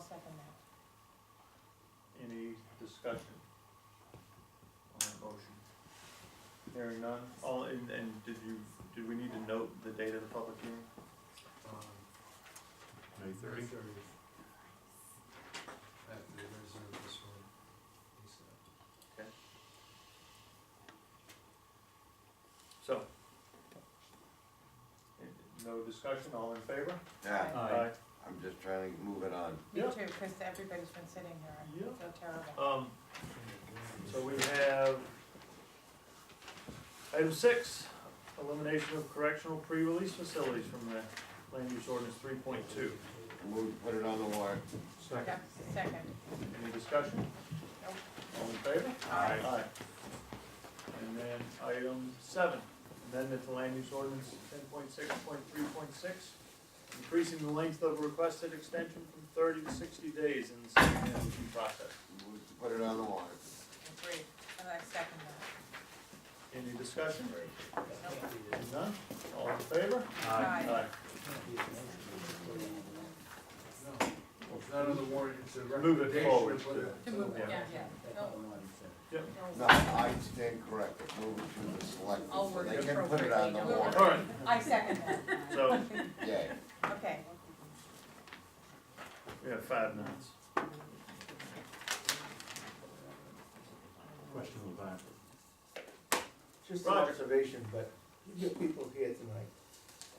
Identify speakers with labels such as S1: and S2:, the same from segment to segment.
S1: second that.
S2: Any discussion on the motion? Hearing none, all, and, and did you, did we need to note the date of the public hearing?
S3: Um,
S4: May thirty.
S3: After they reserve this one, he said.
S2: So. and No discussion, all in favor?
S4: Yeah,
S2: Aye.
S4: I'm just trying to move it on.
S1: Me
S2: Yeah.
S1: too, because everybody's been sitting here, I feel terrible.
S2: Um, so we have item six, elimination of correctional pre-release facilities from the land use ordinance three point two.
S4: Move, put it on the warrant.
S1: Yeah, second.
S2: Any discussion?
S1: Nope.
S2: All in favor?
S1: Aye.
S2: And then item seven, amendment to land use ordinance ten point six point three point six, increasing the length of requested extension from thirty to sixty days in the site plan review process.
S4: Move to put it on the warrant.
S1: Agreed, and I second that.
S2: Any discussion?
S1: Nope.
S2: None? All in favor?
S1: Aye.
S3: Well, it's not on the warrant, it's a
S2: Move it forward.
S3: recommendation, but-
S1: To move,
S2: Yeah.
S1: yeah, yeah. No,
S4: No, I stand corrected, move it to the select.
S1: I'll work
S4: They can put it on the
S1: appropriately.
S4: warrant,
S2: All right,
S1: I second that.
S2: so
S4: yay.
S1: Okay,
S2: we have five minutes.
S5: Question of that.
S6: Just an
S2: Roger.
S6: observation, but you get people here tonight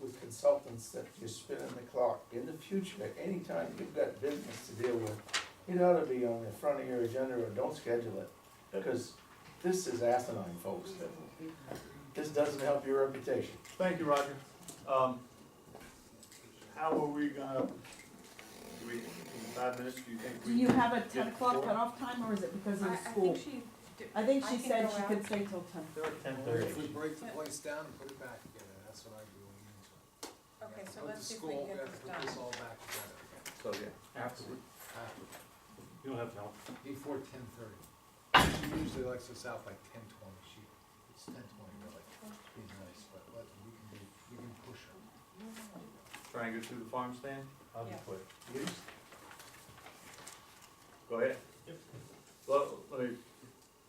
S6: with consultants that just spinning the clock. In the future, anytime you've got business to deal with, it ought to be on the front of your agenda or don't schedule it. Because this is asinine, folks. This doesn't help your reputation.
S2: Thank you, Roger. Um, how are we gonna, do we, in five minutes, do you think we?
S7: Do you have a ten
S2: Yeah.
S7: o'clock cutoff time, or is it because
S1: I, I
S7: of
S1: think
S7: school?
S1: she, d-
S7: I think
S1: I
S7: she
S1: can
S7: said
S1: go
S7: she
S1: out.
S7: could stay till ten.
S2: Ten
S3: Or
S2: thirty.
S3: If we break the place down and put it back together, that's what I do. when we do it. We
S1: okay,
S3: have to
S1: so
S3: put the
S1: let's see if we can
S3: school-
S1: get
S3: we have to
S1: this
S3: Put this
S1: done.
S3: all back together.
S2: So, yeah.
S5: Absolutely.
S3: after-
S5: You'll have help.
S3: Before ten thirty. She usually likes us out by ten twenty, she, it's ten twenty really, be nice, but let, we can be, we can push her.
S2: Try and get through the farm stand?
S5: I'll be
S1: Yeah.
S5: quick.
S2: Go ahead. Let, let me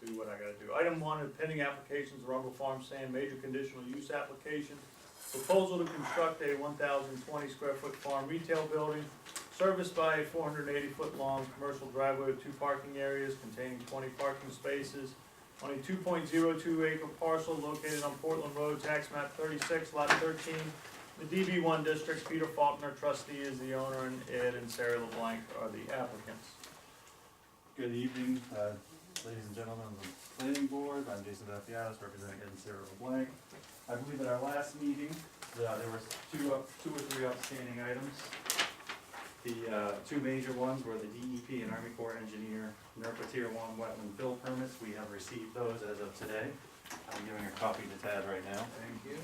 S2: do what I gotta do. Item one, pending applications, Rumble Farm Stand, major conditional use application. Proposal to construct a one thousand twenty square foot farm retail building serviced by a four hundred eighty foot long commercial driveway with two parking areas containing twenty parking spaces on a two point zero two acre parcel located on Portland Road, tax map thirty-six, lot thirteen, the DB one district, Peter Faulkner trustee is the owner, and Ed and Sarah LeBlanc are the applicants.
S5: Good evening, uh, ladies and gentlemen of the planning board. I'm Jason Dafias, representing Ed and Sarah LeBlanc. I believe at our last meeting, uh, there were two, up- two or three outstanding items. The uh, two major ones were the DEP and Army Corps Engineer NERPA Tier One wetland bill permits. We have received those as of today. I'm giving a copy to Tad right now.
S3: Thank you.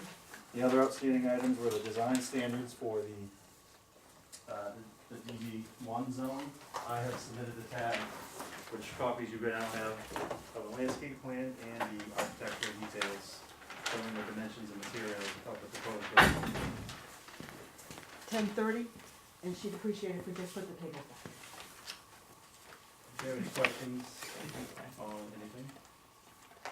S5: The other outstanding items were the design standards for the, uh, the DB one zone. I have submitted the tab, which copies you now have of the landscape plan and the architectural details showing the dimensions and materials of the proposed building.
S7: Ten thirty, and she'd appreciate it if we just put the table back.
S5: Do you have any questions on anything?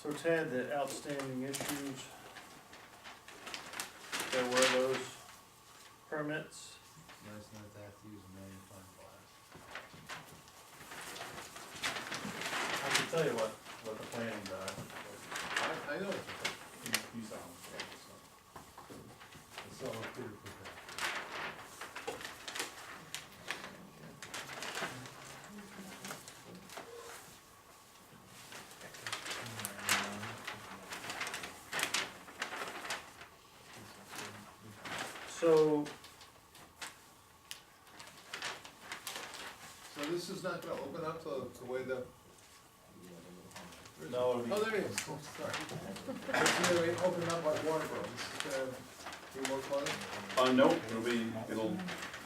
S2: So Ted, the outstanding issues, there were those permits.
S3: Nice not to have to use a magnifying glass.
S5: I can tell you what, what the uh, plans are.
S3: I, I know. it's a-
S5: You saw them.
S3: It's all up here for that.
S2: So,
S3: So this is not gonna open up to the way the.
S2: No, it'll be-
S3: Oh, there it is, Oh, sorry. It's gonna be open up like Waterboro, this is gonna be more closed.
S8: Uh, no, it'll be, it'll,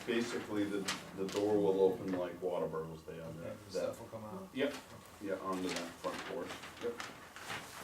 S8: basically, the, the door will open like Waterbubble's day on that, that,
S3: Stuff will come out.
S8: yeah, onto that front porch. Yep.